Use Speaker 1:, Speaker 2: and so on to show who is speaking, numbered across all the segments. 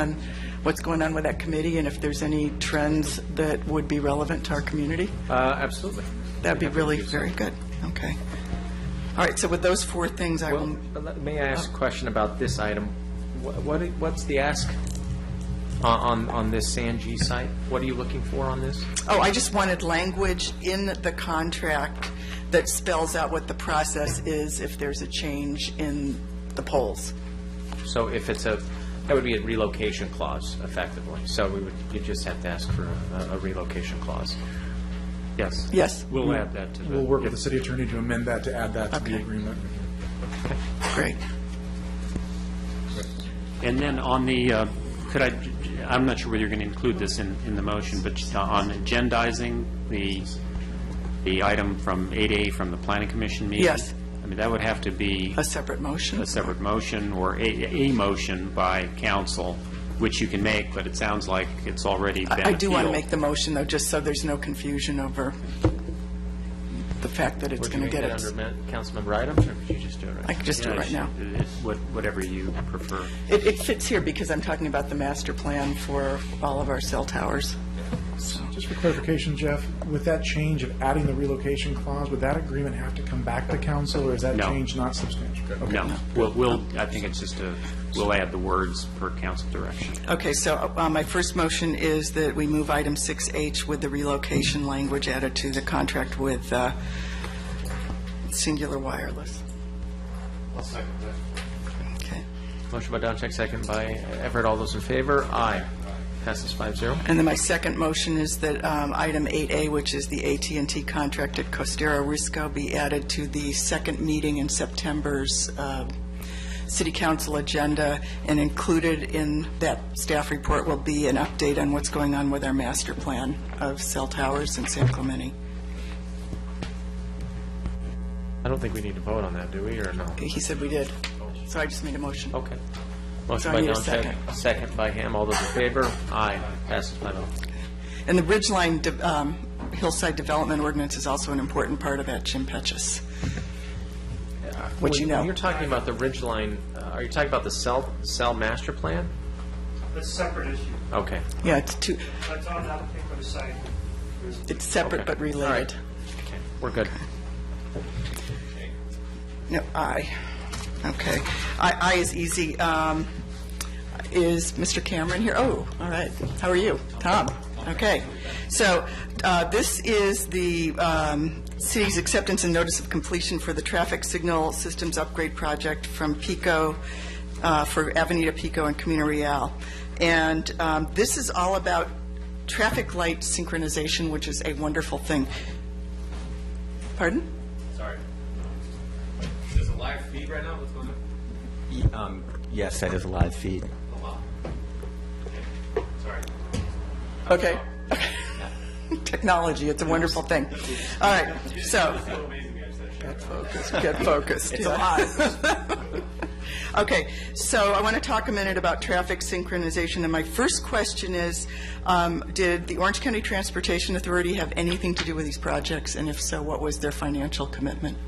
Speaker 1: on what's going on with that committee and if there's any trends that would be relevant to our community?
Speaker 2: Uh, Absolutely.
Speaker 1: That'd be really very good. Okay. All right, so with those four things, I
Speaker 2: Well,
Speaker 1: will,
Speaker 2: but let- may I ask a question about this item? Wh- What, i- what's the ask on, on- on this Sanji site? What are you looking for on this?
Speaker 1: oh, I just wanted language in the contract that spells out what the process is if there's a change in the polls.
Speaker 2: So if it's a, that would be a relocation clause effectively. So we would, you just have to ask for a- a relocation clause. Yes?
Speaker 1: Yes,
Speaker 2: We'll add that to the.
Speaker 3: We'll work with the city attorney to amend that, to add that to the
Speaker 1: Okay.
Speaker 3: agreement.
Speaker 1: great.
Speaker 4: And then on the, uh, could I, I'm not sure whether you're going to include this in, in the motion, but uh, on agendizing the, the item from 8A from the planning commission meeting?
Speaker 1: Yes.
Speaker 4: I mean, that would have to be
Speaker 1: A separate motion?
Speaker 4: a separate motion or a, a motion by council, which you can make, but it sounds like it's already been
Speaker 1: I do want to
Speaker 4: appealed.
Speaker 1: make the motion, though, just so there's no confusion over the fact that it's
Speaker 2: Would you
Speaker 1: going to
Speaker 2: make
Speaker 1: get
Speaker 2: that
Speaker 1: it.
Speaker 2: under ma- councilmember items, or would you just do it right
Speaker 1: I can just do it right now.
Speaker 4: It- uh, what- Whatever you prefer.
Speaker 1: It, it fits here because I'm talking about the master plan for all of our cell towers.
Speaker 3: Just for clarification, Jeff, with that change of adding the relocation clause, would that agreement have to come back to council, or is that
Speaker 4: No.
Speaker 3: change not substantial? Okay.
Speaker 4: No, we'll, we'll, I think it's just a, we'll add the words per council direction.
Speaker 1: Okay, so uh, my first motion is that we move item 6H with the relocation language added to the contract with uh, Singular Wireless. Okay.
Speaker 2: Motion by Doncheck, second by Everett. All those in favor? Aye. Passes five zero.
Speaker 1: And then my second motion is that um, item 8A, which is the at and t contract at Costera Risco, be added to the second meeting in September's uh, city council agenda, and included in that staff report will be an update on what's going on with our master plan of cell towers in San Clemente.
Speaker 2: I don't think we need to vote on that, do we, or no?
Speaker 1: He said we did, so I just made a motion.
Speaker 2: Okay.
Speaker 1: So
Speaker 2: Motion
Speaker 1: I
Speaker 2: by
Speaker 1: need a
Speaker 2: Doncheck,
Speaker 1: second.
Speaker 2: second by Ham. All those in favor? Aye. Passes five oh.
Speaker 1: And the Ridgeline de- um, Hillside Development Ordinance is also an important part of that, Jim Petches. What you know.
Speaker 2: When you're talking about the ridge line, uh, are you talking about the cell, cell master plan?
Speaker 5: That's a separate issue.
Speaker 2: Okay.
Speaker 1: Yeah, it's two,
Speaker 5: That's on that particular site.
Speaker 1: it's separate
Speaker 2: Okay.
Speaker 1: but
Speaker 2: All right.
Speaker 1: related.
Speaker 2: Okay. We're good.
Speaker 1: No, aye. Okay. Aye, aye is easy. Um, Is Mr. Cameron here? Oh, all right. How are you? Tom? Okay. So uh, this is the um, city's acceptance and notice of completion for the traffic signal systems upgrade project from Pico, uh, for Avenida Pico and Camino Real. And um, this is all about traffic light synchronization, which is a wonderful thing. Pardon?
Speaker 6: Sorry. Is this a live feed right now? What's going on? um, Yes, that is a live feed. Sorry.
Speaker 1: Okay. Technology, it's a wonderful thing. All right, so,
Speaker 6: So amazing, guys, that shit.
Speaker 1: get focused. It's a Okay, so I want to talk a minute about traffic synchronization, and my first question is, um, did the Orange County Transportation Authority have anything to do with these projects? And if so, what was their financial commitment?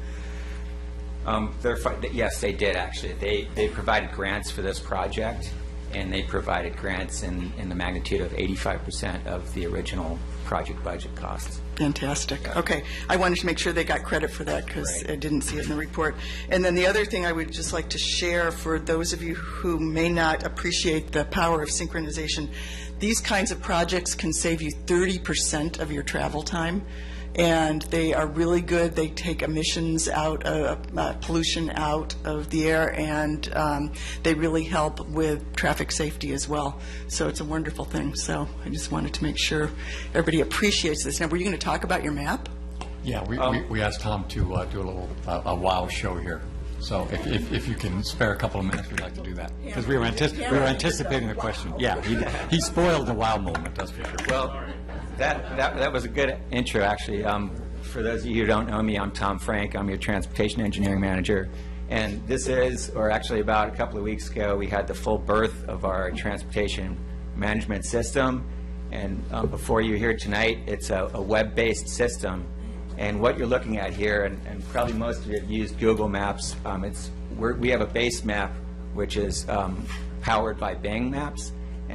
Speaker 6: Um, they're fi- th- Yes, they did, actually. They, they provided grants for this project, and they provided grants in, in the magnitude of 85% of the original project budget costs.
Speaker 1: Fantastic. Okay. I wanted to make sure they got credit for that because
Speaker 6: Right.
Speaker 1: I didn't see it in the report. And then the other thing I would just like to share for those of you who may not appreciate the power of synchronization, these kinds of projects can save you 30% of your travel time. And they are really good. They take emissions out, uh, uh, pollution out of the air, and um, they really help with traffic safety as well. So it's a wonderful thing. So I just wanted to make sure everybody appreciates this. Now, were you going to talk about your map?
Speaker 7: Yeah, we, we- we asked Tom to uh, do a little, uh, a wow show here. So if, if, if you can spare a couple of minutes, we'd like to do that. Because we were anticipating, we were anticipating the question. Yeah, he, he spoiled the wow moment, that's for sure.
Speaker 6: Well, that, that, that was a good intro, actually. Um, for those of you who don't know me, I'm Tom Frank. I'm your transportation engineering manager. And this is, or actually about a couple of weeks ago, we had the full birth of our transportation management system. And um, before you here tonight, it's a, a web-based system. And what you're looking at here, and, and probably most of you have used Google Maps, um, it's, we're, we have a base map which is um, powered by Bing Maps.